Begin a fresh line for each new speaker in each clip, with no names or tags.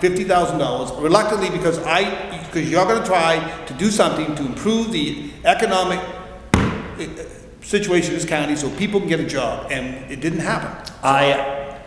fifty thousand dollars reluctantly because I, because you're gonna try to do something to improve the economic uh, situation in this county so people can get a job, and it didn't happen.
I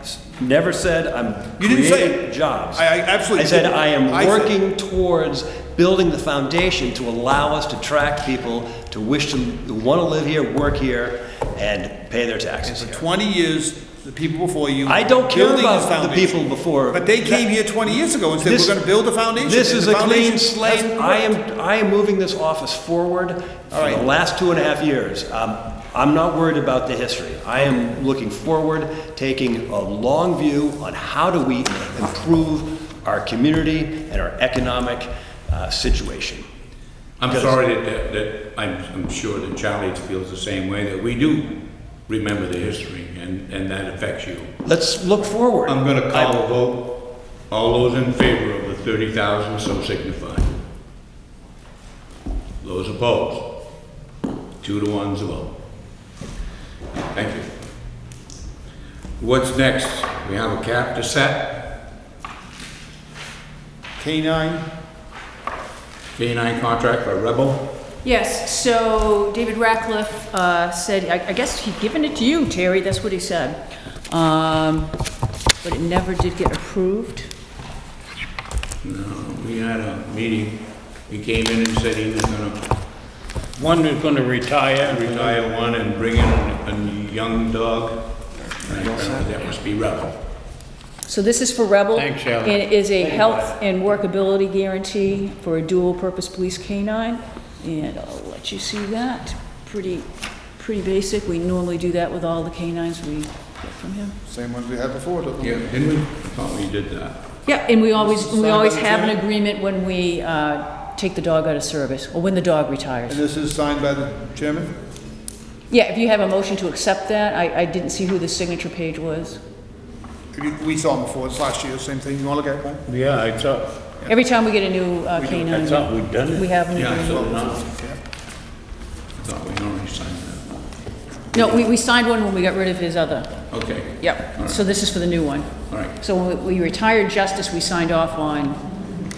s- never said I'm
You didn't say
creating
it.
jobs.
I- I absolutely
I said
didn't.
I
I
am
said-
working towards building the foundation to allow us to attract people to wish to, want to live here, work here, and pay their taxes
For
here.
twenty years, the people before you.
I don't care
building
about
this
the
foundation.
people before.
But they came here twenty years ago and said,
This-
we're gonna build a foundation.
This
and
is
the
a clean
foundation
slate.
hasn't
I
worked.
am, I am moving this office forward
All
for
right.
the last two and a half years. Um, I'm not worried about the history. I am looking forward, taking a long view on how do we improve our community and our economic uh, situation.
I'm
Because-
sorry that- that, that, I'm, I'm sure that Charlie feels the same way, that we do remember the history and, and that affects you.
Let's look forward.
Um,
I'm gonna
I-
call a vote. All those in favor of the thirty thousand, so signify. Those opposed? Two to one's a vote. Thank you. What's next? We have a cap to set,
Canine,
K-9 contract for Rebel.
Yes, so David Ratcliffe uh, said, I I guess he'd given it to you, Terry, that's what he said. Um, But it never did get approved.
No, Uh, we had a meeting. He came in and said he was gonna
One is going to retire.
retire one and bring in a young dog. I don't know, That must be Rebel.
So this is for Rebel.
Thanks, Shelley.
And it is a health and workability guarantee for a dual-purpose police canine. And I'll let you see that. Pretty, pretty basic. We normally do that with all the canines we get from him.
same ones we had before, don't we?
Yeah, didn't we? Thought we did that.
Yeah, and we always, we
Signed by
always
the
have an
chair?
agreement when we uh, take the dog out of service, or when the dog retires.
And this is signed by the chairman?
Yeah, if you have a motion to accept that, I, I didn't see who the signature page was.
We saw him before, it's last year, same thing, you wanna look at it, Mike?
Yeah, I thought,
Every time we get a new uh,
I
canine,
thought we'd done
we
it.
have an
Yeah, I saw
agreement.
it now. I thought we already signed that.
No, we, we signed one when we got rid of his other.
Okay. All
Yep,
right.
so this is for the new one.
All right,
So when we retired Justice, we signed off on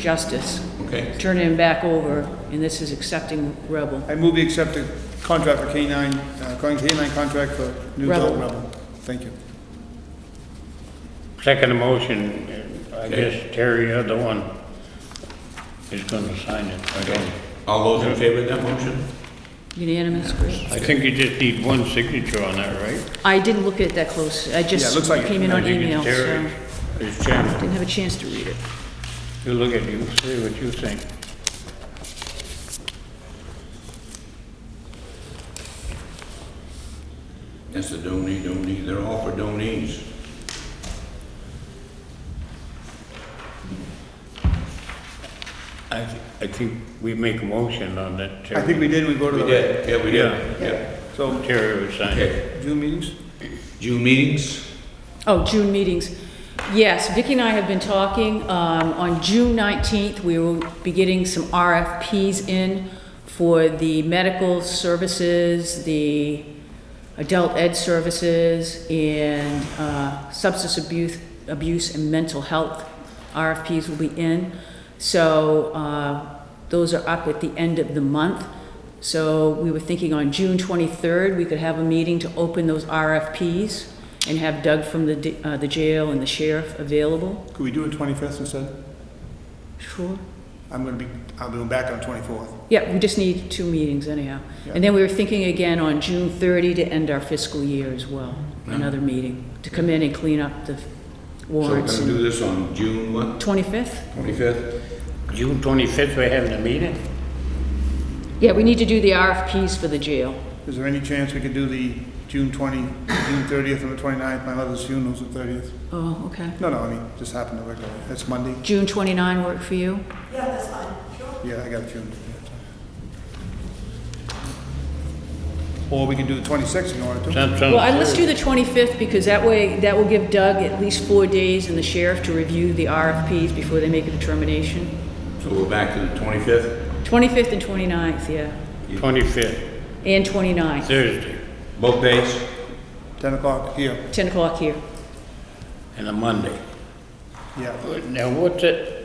Justice,
okay.
turning him back over, and this is accepting Rebel.
I move we accept the contract for canine, uh, canine contract for new dog
Rebel.
Rebel. Thank you.
Second motion, and I
Okay.
guess Terry, you're the one, is going to sign it. I don't.
All those in favor of that motion?
Unanimous, great.
I think you just need one signature on that, right?
I didn't look at it that close, I
Yeah, it
just
looks like it.
came in on
I think
email,
it's
so
Terry
didn't
It's chairman.
have a chance to read it.
You look at you, see what you think.
That's a donee, donee, they're all for donees.
I, thi- I think we make a motion on that, Terry.
I think we did, we voted.
We
on it.
did, yeah, we did, yeah.
So,
Terry would sign it.
Okay,
June meetings?
June meetings?
Oh, June meetings. Yes, Vicki and I have been talking. Um, On June 19th, we will be getting some RFPs in for the medical services, the adult ed services, and uh, substance abuse, abuse and mental health RFPs will be in. So uh, those are up at the end of the month. So we were thinking on June 23rd, we could have a meeting to open those RFPs and have Doug from the d- uh, the jail and the sheriff available.
Could we do it 21st instead?
Sure.
I'm gonna be, I'll be back on 24th.
Yeah, we just need two meetings anyhow. And then we were thinking again on June 30 to end our fiscal year as well, another meeting, to come in and clean up the
So we're
warrants.
gonna do this on June what,
25th?
twenty-fifth?
June twenty-fifth, we're having a meeting?
Yeah, we need to do the RFPs for the jail.
Is there any chance we could do the June 20, June 30th and the 29th? My mother's funeral's the 30th.
Oh, okay.
No, no, I mean, just happened to work out. That's Monday.
June 29 work for you?
Yeah, I got a funeral. Or we can do the 26th if you wanted to.
Sounds- sounds
Well, I- let's do
good.
the 25th, because that way, that will give Doug at least four days and the sheriff to review the RFPs before they make a determination.
So we're back to the twenty-fifth?
25th and 29th, yeah,
Twenty-fifth,
and 29th,
Thursday,
Both days?
10 o'clock here.
10 o'clock here.
and a Monday.
Yeah.
Now, what's it,